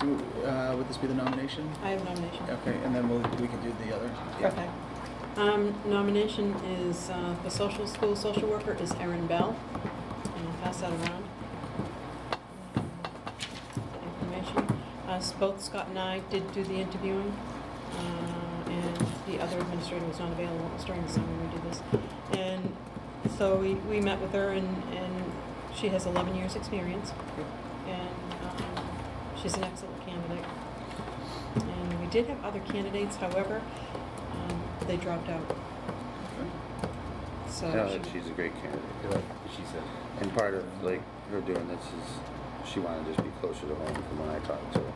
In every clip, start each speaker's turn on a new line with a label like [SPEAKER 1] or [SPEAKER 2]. [SPEAKER 1] w- uh, would this be the nomination?
[SPEAKER 2] I have nomination.
[SPEAKER 1] Okay, and then we'll, we can do the other. yeah.
[SPEAKER 2] Perfect. Um, nomination is, uh, the social school social worker is Erin Bell. And I'll pass that around. Information. Uh, s- both Scott and I did do the interviewing, uh, and the other administrator was not available. It was during the summer we did this. And so we, we met with her and, and she has eleven years' experience. And, um, she's an excellent candidate. And we did have other candidates, however, um, they dropped out,
[SPEAKER 1] Okay.
[SPEAKER 2] so.
[SPEAKER 3] No,
[SPEAKER 1] Oh,
[SPEAKER 2] she-
[SPEAKER 3] and she's a great candidate, like she said. And part of, like, her doing this is, she wanted to just be closer to home from when I talked to her.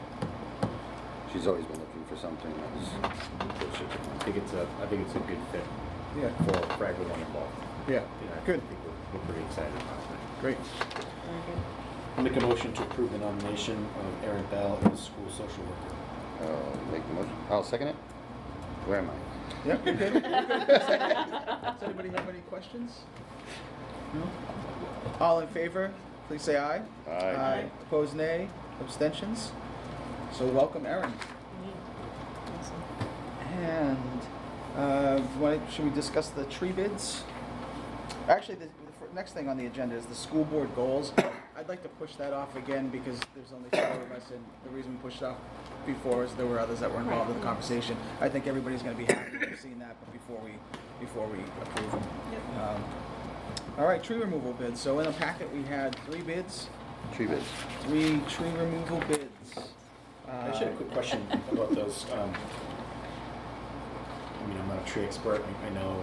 [SPEAKER 3] She's always been looking for something that was closer to
[SPEAKER 4] I
[SPEAKER 3] home.
[SPEAKER 4] think it's a, I think it's a good fit
[SPEAKER 1] Yeah,
[SPEAKER 4] for, for everyone involved.
[SPEAKER 1] yeah,
[SPEAKER 4] You know, I
[SPEAKER 1] good,
[SPEAKER 4] think we're, we're pretty excited about that.
[SPEAKER 1] great.
[SPEAKER 2] Very good.
[SPEAKER 4] I'll Make a motion to approve the nomination of Erin Bell as school social worker.
[SPEAKER 3] I'll make the motion, I'll second it. Where am I?
[SPEAKER 1] Yeah, we're good. We're good. Does anybody have any questions? No? All in favor, please say aye.
[SPEAKER 3] Aye.
[SPEAKER 1] Opposed, nay? Abstentions? So welcome, Erin.
[SPEAKER 2] Yeah. Awesome.
[SPEAKER 1] And, uh, why- should we discuss the tree bids? Actually, the the fir- next thing on the agenda is the school board goals. I'd like to push that off again because there's only four of us, and the reason we pushed off before is there were others that were involved in the conversation. I think everybody's gonna be happy to have seen that, but before we, before we approve them.
[SPEAKER 2] Yep.
[SPEAKER 1] Um, All right, tree removal bids. So in the packet, we had three bids,
[SPEAKER 3] Tree bids.
[SPEAKER 1] three tree removal bids. Uh,
[SPEAKER 4] I just had a quick question about those. Um, I mean, I'm not a tree expert. I, I know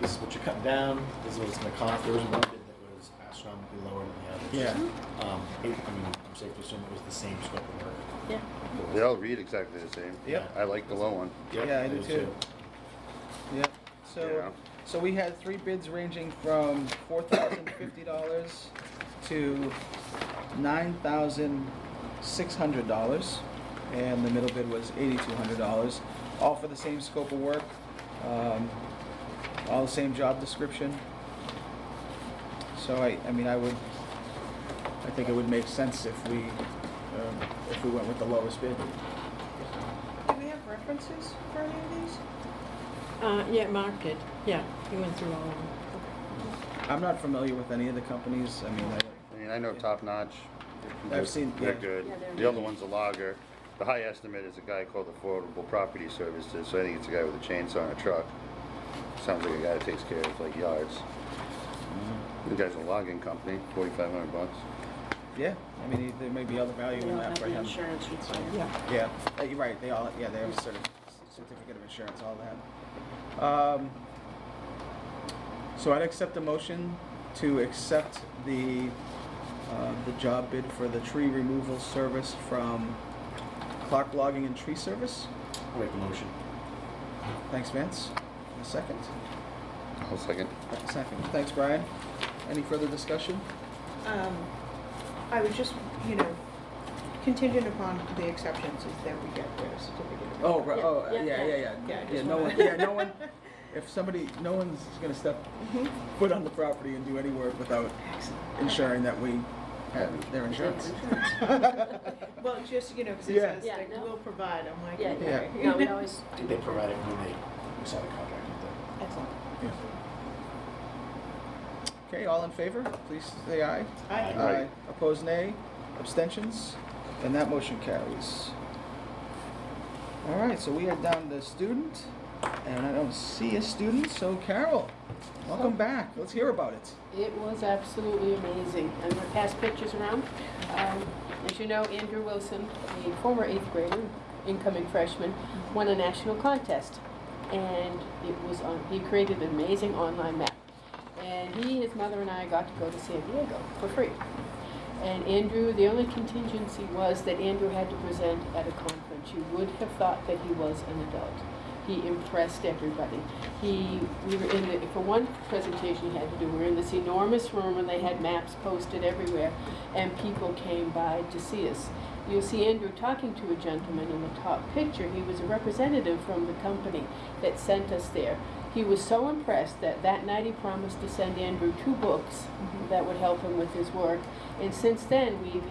[SPEAKER 4] this is what you're cutting down. This is what it's going to cost. There was one bid that was astronomically lower than the others.
[SPEAKER 1] Yeah.
[SPEAKER 4] Um, it, I mean, I'm safe to assume it was the same scope of work.
[SPEAKER 2] Yeah.
[SPEAKER 3] They all read exactly the same.
[SPEAKER 1] Yep.
[SPEAKER 3] I like the low one.
[SPEAKER 1] Yeah, I do too. Yeah,
[SPEAKER 3] Yeah.
[SPEAKER 1] so, so we had three bids ranging from four thousand fifty dollars to nine thousand six hundred dollars. And the middle bid was eighty-two hundred dollars, all for the same scope of work, um, all the same job description. So I, I mean, I would, I think it would make sense if we, um, if we went with the lowest bid.
[SPEAKER 5] Do we have references for any of these?
[SPEAKER 2] Uh, yeah, Mark did, yeah, he went through all of them.
[SPEAKER 1] I'm not familiar with any of the companies, I mean, I,
[SPEAKER 3] I mean, I know top notch.
[SPEAKER 1] I've seen-
[SPEAKER 3] They're
[SPEAKER 1] yeah.
[SPEAKER 3] good.
[SPEAKER 2] Yeah, they're
[SPEAKER 3] The other one's a logger. The high estimate is a guy called Affordable Property Services, so I think it's a guy with a chainsaw and a truck. Sounds like a guy that takes care of like yards.
[SPEAKER 1] Mm-hmm.
[SPEAKER 3] The guy's a logging company, forty-five hundred bucks.
[SPEAKER 1] Yeah, I mean, there may be other value in that for him.
[SPEAKER 2] Yeah,
[SPEAKER 1] Yeah, uh, you're right, they all, yeah, they have a certi- certificate of insurance, all that. Um, So I'd accept a motion to accept the, uh, the job bid for the tree removal service from Clark Logging and Tree Service.
[SPEAKER 4] I'll make a motion.
[SPEAKER 1] Thanks, Vance. A second?
[SPEAKER 3] I'll second.
[SPEAKER 1] A Second. Thanks, Brian. Any further discussion?
[SPEAKER 5] Um, I would just, you know, contingent upon the exceptions is that we get the certificate. of-
[SPEAKER 1] Oh, right,
[SPEAKER 2] Yeah,
[SPEAKER 1] oh,
[SPEAKER 2] yeah,
[SPEAKER 1] yeah, yeah,
[SPEAKER 2] yeah.
[SPEAKER 1] yeah.
[SPEAKER 5] Yeah, I just
[SPEAKER 1] Yeah, no one,
[SPEAKER 5] wanna-
[SPEAKER 1] yeah, no one, if somebody, no one's gonna step
[SPEAKER 5] Mhm.
[SPEAKER 1] foot on the property and do any work without ensuring that we have their insurance.
[SPEAKER 5] Well, just, you know, because it
[SPEAKER 1] Yeah.
[SPEAKER 5] says
[SPEAKER 2] Yeah,
[SPEAKER 5] like,
[SPEAKER 2] no.
[SPEAKER 5] we'll provide, I'm like,
[SPEAKER 2] Yeah,
[SPEAKER 5] okay.
[SPEAKER 2] no, we always,
[SPEAKER 4] I think they provided when they signed the contract. didn't they?
[SPEAKER 5] Excellent.
[SPEAKER 1] Yeah. Okay, all in favor, please say aye.
[SPEAKER 5] I-
[SPEAKER 4] Aye.
[SPEAKER 1] Opposed, nay, abstentions, and that motion carries. All right, so we are down to student, and I don't see a student, so Carol, welcome back, let's hear about it.
[SPEAKER 6] It was absolutely amazing. I'm going to pass pictures around. Um, As you know, Andrew Wilson, a former eighth grader, incoming freshman, won a national contest. And it was on, he created an amazing online map. And he, his mother, and I got to go to San Diego for free. And Andrew, the only contingency was that Andrew had to present at a conference. You would have thought that he was an adult. He impressed everybody. He, we were in the, for one presentation he had to do, we were in this enormous room and they had maps posted everywhere and people came by to see us. You'll see Andrew talking to a gentleman in the top picture. He was a representative from the company that sent us there. He was so impressed that that night he promised to send Andrew two books that would help him with his work. And since then, we've